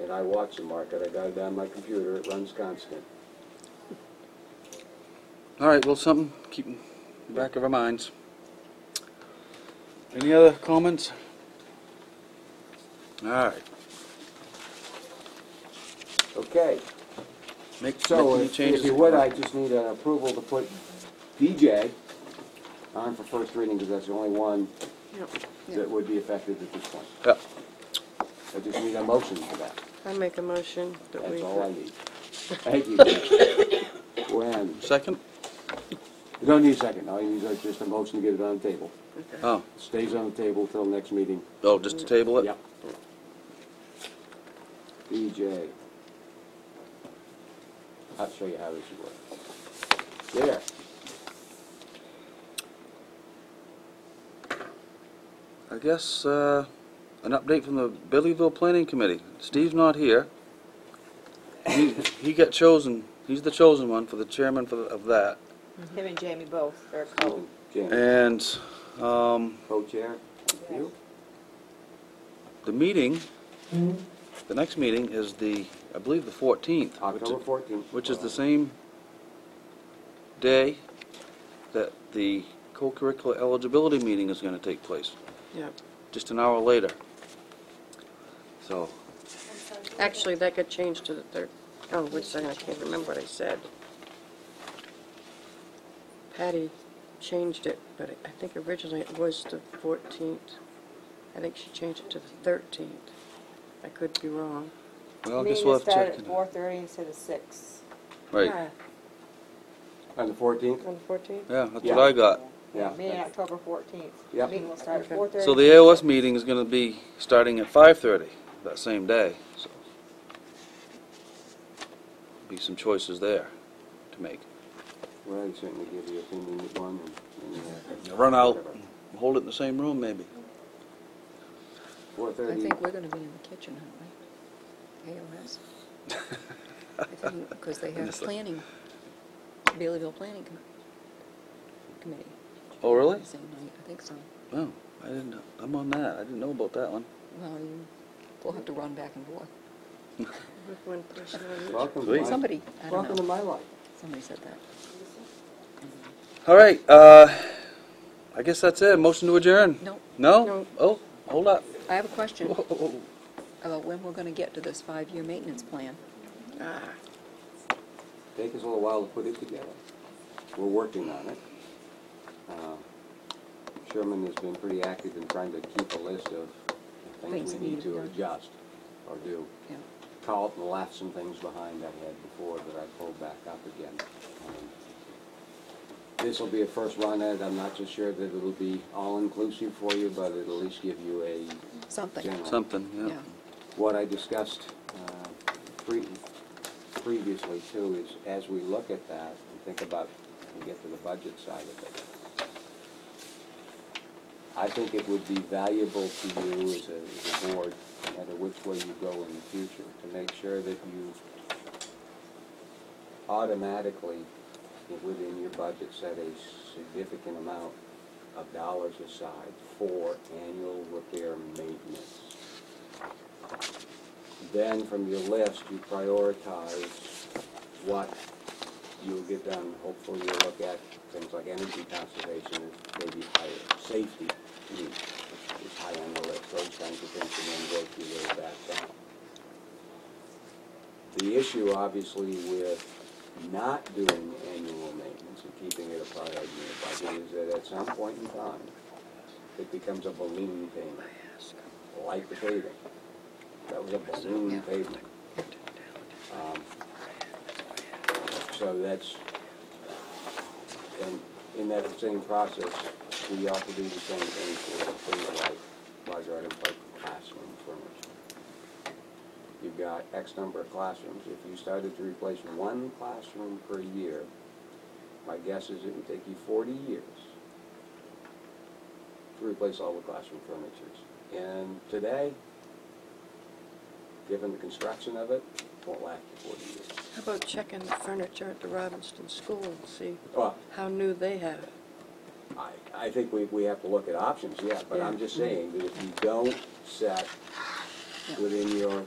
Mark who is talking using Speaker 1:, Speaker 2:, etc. Speaker 1: and I watch the market. I got it on my computer. It runs constant.
Speaker 2: All right, well, something keep in the back of our minds. Any other comments? All right,
Speaker 1: Okay,
Speaker 2: make, make
Speaker 1: so
Speaker 2: any
Speaker 1: if
Speaker 2: changes.
Speaker 1: if you would, I just need an approval to put DJ on for first reading, because that's the only one
Speaker 3: Yep.
Speaker 1: that would be affected at this point.
Speaker 2: Yeah.
Speaker 1: I just need a motion for that.
Speaker 3: I make a motion that we.
Speaker 1: That's all I need. Thank you. When,
Speaker 2: Second?
Speaker 1: you don't need a second, all you need is just a motion to get it on the table.
Speaker 3: Okay.
Speaker 2: Oh,
Speaker 1: Stays on the table till next meeting.
Speaker 2: oh, just to table it?
Speaker 1: Yep. E DJ. I'll show you how this works. There.
Speaker 2: I guess, uh, an update from the Billyville Planning Committee. Steve's not here. He, he got chosen, he's the chosen one for the chairman for, the- of that.
Speaker 4: Him and Jamie both are co.
Speaker 1: Jan,
Speaker 2: And, um,
Speaker 1: co-chair, you?
Speaker 2: the meeting,
Speaker 1: Hmm?
Speaker 2: the next meeting is the, I believe, the fourteenth.
Speaker 1: October fourteenth.
Speaker 2: which is the same day that the co-curricular eligibility meeting is going to take place,
Speaker 3: Yep.
Speaker 2: just an hour later. So,
Speaker 3: Actually, that got changed to the third. Oh, wait a second, I can't remember what I said. Patty changed it, but I- I think originally it was the 14th. I think she changed it to the 13th. I could be wrong.
Speaker 2: well, I guess we'll have to check.
Speaker 4: Meeting started at
Speaker 2: it.
Speaker 4: four thirty instead of six.
Speaker 2: Right,
Speaker 1: On the fourteenth?
Speaker 3: On the 14th?
Speaker 2: yeah, that's
Speaker 1: Yeah.
Speaker 2: what I got.
Speaker 1: Yeah.
Speaker 4: Meeting October fourteenth.
Speaker 1: Yep.
Speaker 4: Meeting will start at
Speaker 3: Okay.
Speaker 4: four thirty.
Speaker 2: So the AOS meeting is going to be starting at 5:30 that same day, so. Be some choices there to make.
Speaker 1: Well, I certainly give you a opinion at one and. and, uh,
Speaker 2: Run out,
Speaker 1: whatever.
Speaker 2: hold it in the same room, maybe.
Speaker 1: Four
Speaker 5: I
Speaker 1: thirty,
Speaker 5: think we're gonna be in the kitchen, aren't we? AOS? I think, because they have
Speaker 2: Yes, sir.
Speaker 5: planning, Baileyville Planning Com- Committee,
Speaker 2: Oh, really?
Speaker 5: the same night, I think so.
Speaker 2: Oh, I didn't, know- I'm on that, I didn't know about that one.
Speaker 5: Well, you, we'll have to run back and forth.
Speaker 3: With one person on each.
Speaker 1: welcome.
Speaker 2: Sweet.
Speaker 1: Mike.
Speaker 5: Somebody, I
Speaker 1: Welcome
Speaker 5: don't
Speaker 1: to
Speaker 5: know,
Speaker 1: my life.
Speaker 5: somebody said that.
Speaker 2: All right, uh, I guess that's it. Motion to adjourn?
Speaker 5: No.
Speaker 2: No?
Speaker 3: No.
Speaker 2: Oh, hold up.
Speaker 5: I have a question
Speaker 2: Whoa, whoa, whoa.
Speaker 5: about when we're gonna get to this five-year maintenance plan.
Speaker 3: Ah,
Speaker 1: Take us a little while to put it together. We're working on it. Um, Sherman has been pretty active in trying to keep a list of things
Speaker 5: Things
Speaker 1: we need
Speaker 5: needed
Speaker 1: to
Speaker 5: done.
Speaker 1: adjust or do.
Speaker 5: Yeah.
Speaker 1: Carlton left some things behind I had before that I pulled back up again. Um, This will be a first run at it. I'm not so sure that it'll be all-inclusive for you, but it'll at least give you a
Speaker 5: Something,
Speaker 1: General.
Speaker 2: Something, yeah.
Speaker 5: yeah.
Speaker 1: what I discussed uh, pre- previously too is as we look at that and think about, and get to the budget side of it, I think it would be valuable to you as a, as a board, no matter which way you go in the future, to make sure that you automatically, within your budget, set a significant amount of dollars aside for annual repair maintenance. Then from your list, you prioritize what you'll get done. Hopefully you'll look at things like energy conservation, is maybe higher, safety mm, is high on the list, those kinds of things, and then work your way back down. The issue obviously with not doing annual maintenance and keeping it a priority in your budget is that at some point in time, it becomes a balloon payment, like the paving. That was a balloon pavement. Um, So that's, and in that same process, we ought to do the same thing for things like large items like classroom furniture. You've got X number of classrooms. If you started to replace one classroom per year, my guess is it would take you forty years to replace all the classroom furnitures. And today, given the construction of it, won't last you forty years.
Speaker 3: How about checking the furniture at the Robinson School and see
Speaker 1: Well,
Speaker 3: how new they have it?
Speaker 1: I, I think we, we have to look at options, yeah, but I'm just saying that if you don't set within your